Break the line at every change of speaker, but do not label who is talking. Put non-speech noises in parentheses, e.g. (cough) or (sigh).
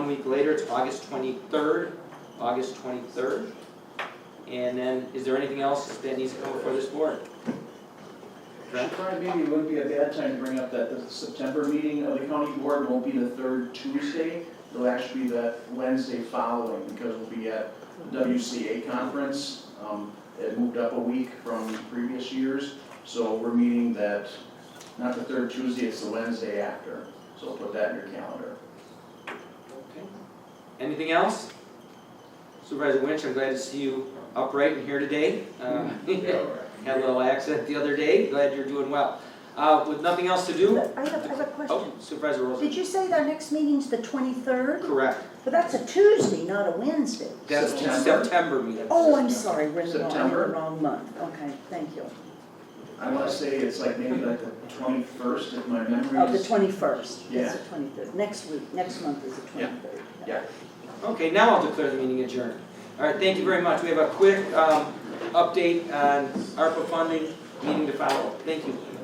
week later, it's August twenty-third, August twenty-third. And then, is there anything else that needs to come before this board? Brent?
Probably maybe it wouldn't be a bad time to bring up that the September meeting of the county board won't be the third Tuesday. It'll actually be the Wednesday following because we'll be at WCA conference. Um, It moved up a week from previous years, so we're meeting that, not the third Tuesday, it's the Wednesday after. So put that in your
(laughs)
calendar.
Okay. Anything else? Supervisor Winch, I'm glad to see you upright and here today. Uh, (laughs) Had a little accident the other day, glad you're doing well. Uh, With nothing else to do?
I have, I have a question.
Oh, Supervisor Rosen,
Did you say our next meeting's the twenty-third?
correct.
But that's a Tuesday, not a Wednesday.
That's the
September.
September meeting.
Oh, I'm sorry, we're in the wrong,
September.
wrong month. Okay, thank you.
I want to say it's like maybe like the twenty-first if my memory
Of the
is.
twenty-first,
Yeah.
it's the twenty-third. Next week, next month is the
Yeah.
twenty-third.
Okay, now I'll declare the meeting adjourned. All right, thank you very much. We have a quick um, update on ARPA funding, meeting to follow. Thank you.